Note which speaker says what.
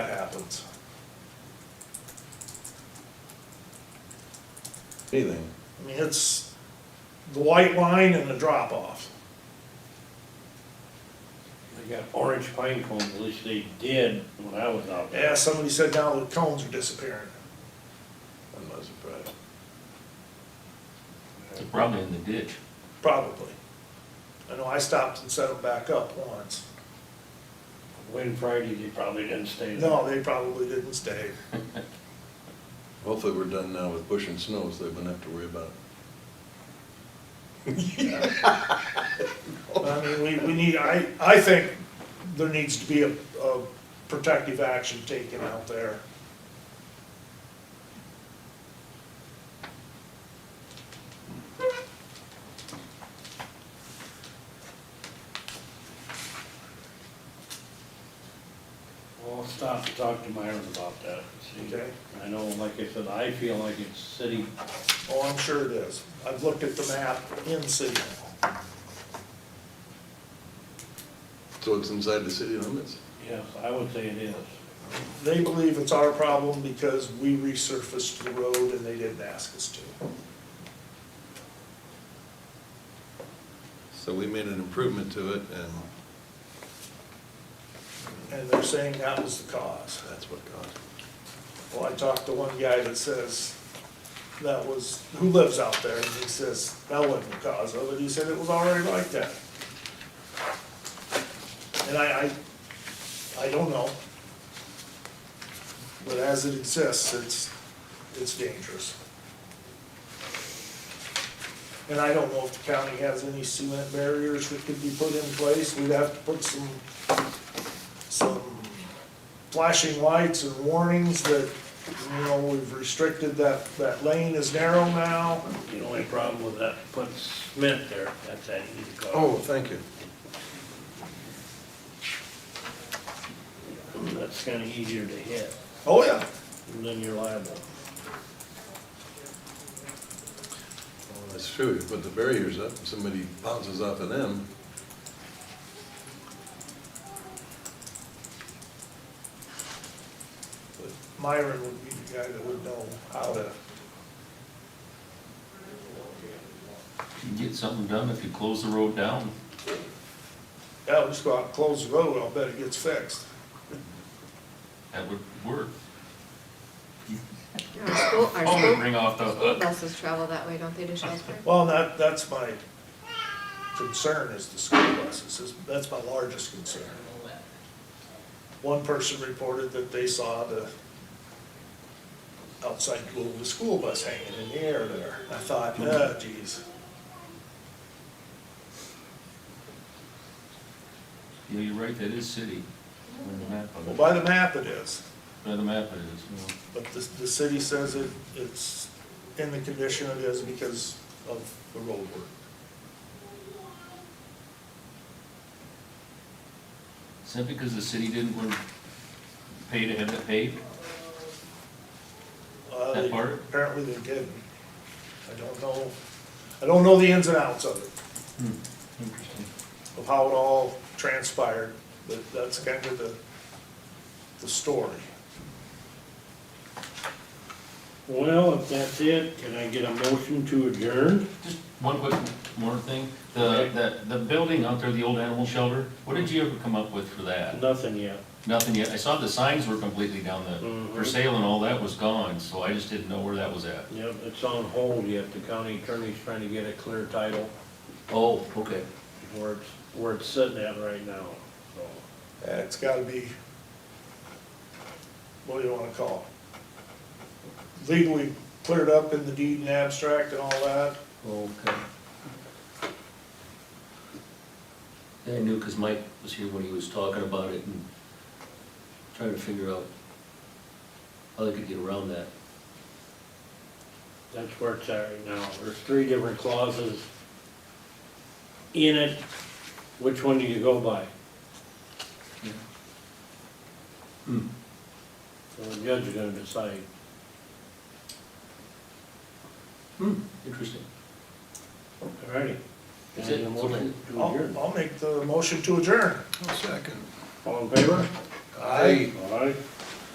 Speaker 1: happens. Anything, I mean, it's the white line and the drop off.
Speaker 2: They got orange pine cones, at least they did when I was out there.
Speaker 1: Yeah, somebody said now the cones are disappearing. I'm not surprised.
Speaker 3: They're probably in the ditch.
Speaker 1: Probably. I know I stopped and set them back up once.
Speaker 2: When Friday, they probably didn't stay there.
Speaker 1: No, they probably didn't stay.
Speaker 4: Hopefully we're done now with pushing snow, so they wouldn't have to worry about
Speaker 1: I mean, we, we need, I, I think there needs to be a, a protective action taken out there.
Speaker 2: Well, I'll stop to talk to Myron about that. see.
Speaker 1: Okay.
Speaker 2: I know, like I said, I feel like it's city,
Speaker 1: Oh, I'm sure it is. I've looked at the map in City Hall.
Speaker 4: it. So it's inside the city limits?
Speaker 2: yes, I would say it is.
Speaker 1: They believe it's our problem because we resurfaced the road and they didn't ask us to.
Speaker 4: So we made an improvement to it, and
Speaker 1: And they're saying that was the cause.
Speaker 4: that's what caused it.
Speaker 1: Well, I talked to one guy that says that was, who lives out there, and he says that wasn't the cause of it, he said it was already like that. And I, I, I don't know. But as it exists, it's, it's dangerous. And I don't know if the county has any cement barriers that could be put in place, we'd have to put some, some flashing lights and warnings that, you know, we've restricted that, that lane is narrow now.
Speaker 2: The only problem with that, putting cement there, that's that easy call.
Speaker 4: Oh, thank you.
Speaker 2: That's kinda easier to hit,
Speaker 1: Oh, yeah.
Speaker 2: and then you're liable.
Speaker 4: Well, That's true, you put the barriers up, and somebody bounces off of them.
Speaker 1: Myron would be the guy that would know how to,
Speaker 3: You can get something done if you close the road down.
Speaker 1: yeah, we'll just go out and close the road, I'll bet it gets fixed.
Speaker 3: That would work.
Speaker 5: Our school, our
Speaker 3: Phone would
Speaker 5: school
Speaker 3: ring Oh, off the uh, hook.
Speaker 5: buses travel that way, don't they, to Shelburne?
Speaker 1: Well, that, that's my concern is the school buses, is- that's my largest concern. One person reported that they saw the outside glow of the school bus hanging in the air there. I thought, ah, geez.
Speaker 3: Yeah, you're right, that is city. By the map of
Speaker 1: Well,
Speaker 3: it.
Speaker 1: by the map it is,
Speaker 3: By the map it is, yeah.
Speaker 1: but the, the city says it, it's in the condition it is because of the road work.
Speaker 3: Is that because the city didn't want to pay to have it paved?
Speaker 1: Uh,
Speaker 3: That
Speaker 1: they-
Speaker 3: part?
Speaker 1: Apparently they didn't. I don't know, I don't know the ins and outs of it.
Speaker 3: Hmm, Interesting.
Speaker 1: of how it all transpired, but that's kind of the, the story.
Speaker 2: Well, if that's it, can I get a motion to adjourn?
Speaker 3: Just one quick more thing. The,
Speaker 2: Okay.
Speaker 3: that, the building out there, the old animal shelter, what did you ever come up with for that?
Speaker 2: Nothing yet.
Speaker 3: Nothing yet. I saw the signs were completely down the,
Speaker 2: Mhm.
Speaker 3: for sale and all that was gone, so I just didn't know where that was at.
Speaker 2: Yep, it's on hold yet. The county attorney's trying to get a clear title
Speaker 3: Oh, okay.
Speaker 2: where it's, where it's sitting at right now, so.
Speaker 1: Uh, It's gotta be, what do you wanna call it? Legally cleared up in the deed and abstract and all that.
Speaker 3: Okay.
Speaker 6: I knew because Mike was here when he was talking about it and trying to figure out how they could get around that.
Speaker 2: That's where it's at right now. There's three different clauses in it. Which one do you go by?
Speaker 6: Hmm.
Speaker 2: So the judge is gonna decide.
Speaker 6: Hmm, interesting.
Speaker 2: Alrighty.
Speaker 6: That's
Speaker 2: Any
Speaker 6: it.
Speaker 2: motion to
Speaker 1: I'll,
Speaker 2: adjourn?
Speaker 1: I'll make the motion to adjourn.
Speaker 4: Second.
Speaker 2: All in favor?
Speaker 4: Aye.
Speaker 2: All right.